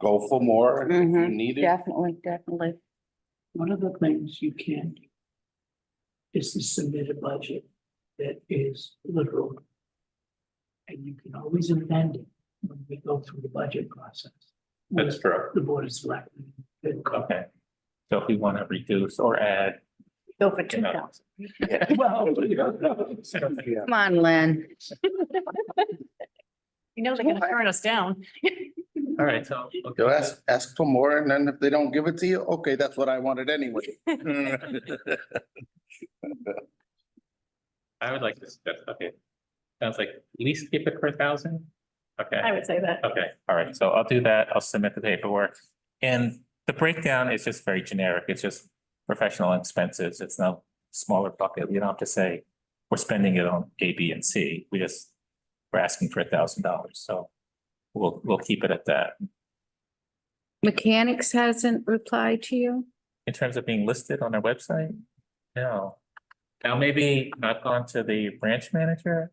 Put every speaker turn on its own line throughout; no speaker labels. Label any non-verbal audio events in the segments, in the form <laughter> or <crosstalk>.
go for more if you
Mhm,
need it.
Definitely, definitely.
One of the things you can do is to submit a budget that is literal. And you can always amend it when we go through the budget process.
That's true.
The board of selectmen.
Okay. So if we want to reduce or add. Oh,
Go for
two
thousand.
Well, you
<laughs>
know,
Come on, Lynn.
You know, they're gonna turn us down.
All right, so.
You ask, ask for more and then if they don't give it to you, okay, that's what I wanted
<laughs>
anyway. Mm-hmm.
I would like to suggest, okay. Sounds like at least keep it per thousand. Okay.
I would say that.
Okay, all right, so I'll do that. I'll submit the paperwork. And the breakdown is just very generic. It's just professional expenses. It's no smaller bucket. You don't have to say we're spending it on A, B, and C. We just, we're asking for a thousand dollars, so we'll, we'll keep it at that.
Mechanics hasn't replied to you?
In terms of being listed on our website? No. Now, maybe I've gone to the branch manager.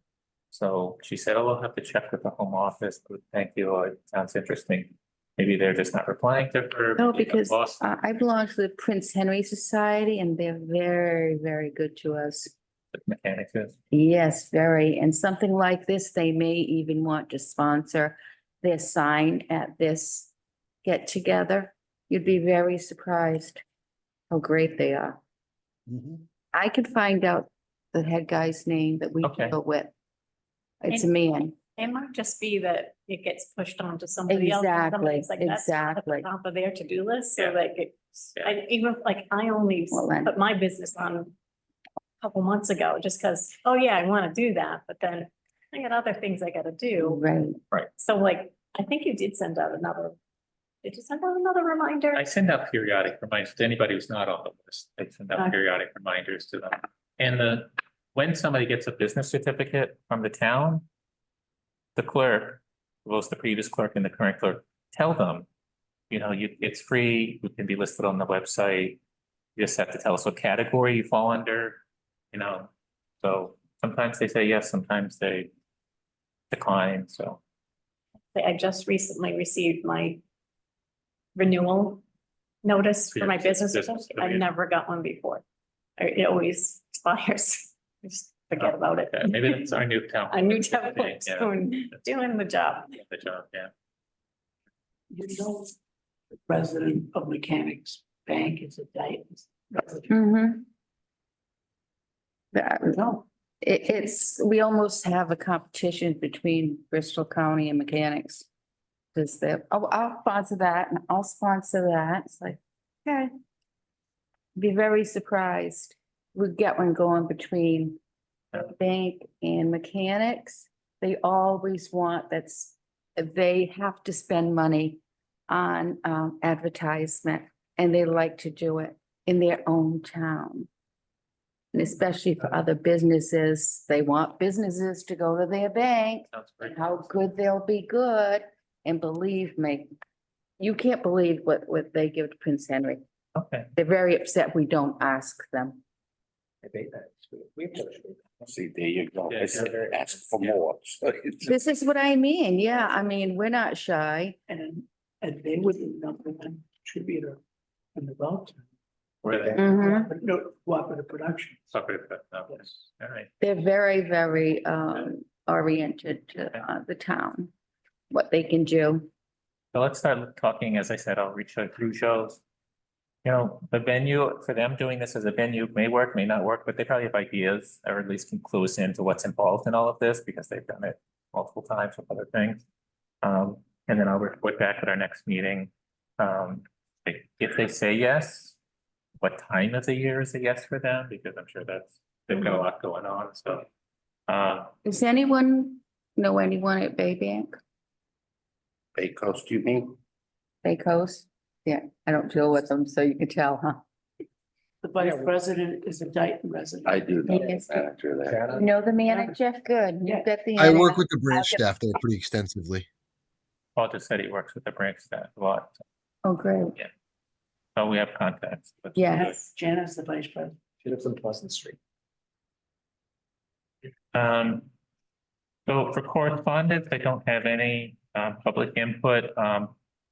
So she said, oh, we'll have to check with the home office. but Thank you. It sounds interesting. Maybe they're just not replying to her.
No,
maybe I've
because uh,
lost-
I, I belong to the Prince Henry Society and they're very, very good to us.
mechanics is.
Yes, very. And something like this, they may even want to sponsor their sign at this get together. You'd be very surprised how great they are. I could find out the head guy's name that we
Okay.
deal with. It's a
And-
man.
It might just be that it gets pushed on to somebody else. and
Exactly,
somebody's like, "That's not at the
exactly.
Top of their to-do list, so
Yeah.
like, it's, I even, like, I only
Well, then-
put my business on a couple months ago, just because, oh yeah, I want to do that, but then I got other things I gotta do.
Right.
So like, I think you did send out another, did you send out another reminder?
I send out periodic reminders to anybody who's not on the list. I send out
Okay.
periodic reminders to them. And the, when somebody gets a business certificate from the town, the clerk, both the previous clerk and the current clerk, tell them, you know, you, it's free, you can be listed on the website. You just have to tell us what category you fall under, you know? So sometimes they say yes, sometimes they decline,
<laughs>
so.
Say, I just recently received my renewal notice for my
For your
business.
business,
certificate. I've
okay.
never got one before. I- It always <laughs> expires. I Just forget about it.
Yeah, Oh, Maybe that's our new town.
<laughs> A new
clerk
<laughs> template,
today,
doing, doing the job.
yeah, The job, yeah.
you know, the president of mechanics bank is a Dayton.
Mm-hmm. That,
No,
it, it's, we almost have a competition between Bristol County and mechanics. Cause they're, oh, I'll sponsor that and I'll sponsor that. It's like, okay. Be very surprised. We get one going between the bank and mechanics. They always want that's, they have to spend money on, um, advertisement and they like to do it in their own town. And especially for other businesses, they want businesses to go to their bank,
Sounds
and
great.
how good they'll be good, and believe me, you can't believe what, what they give to Prince Henry.
Okay.
They're very upset we don't ask them.
See, there you go.
Yeah,
I said,
yeah, very-
Ask for
yeah.
more. <laughs> So it's-
This is what I mean, yeah, I mean, we're not shy.
and, and they were the number one contributor in the Belton.
Where they.
Mhm.
No, cooperative production.
Sorry, but, no, yes. all right.
They're very, very, um, oriented to, uh, the town, what they can do.
So let's start talking, as I said, I'll reach out through shows. You know, the venue, for them doing this as a venue may work, may not work, but they probably have ideas or at least can clue us into what's involved in all of this because they've done it multiple times with other things. Um, and then I'll report back at our next meeting. Um, if- if they say yes, what time of the year is a yes for them? Because I'm sure that's, they've got a lot going on, so. Uh,
Does anyone know anyone at Baybank,
Bay Coast, you mean?
Bay Coast? Yeah, I don't deal with them, so you can tell, huh?
The vice president is a Dayton resident.
I do know the
Yes.
manager there.
You know the manager? Good.
Yeah.
You've got the.
I
internet.
work with the branch
get-
staff there pretty extensively.
Paul just said he works with the branch staff a lot,
Oh, great.
so we have contacts. but-
Yes.
Janice, the vice president.
She lives on Pleasant Street.
Um, so for correspondence, I don't have any, um, public input. Um,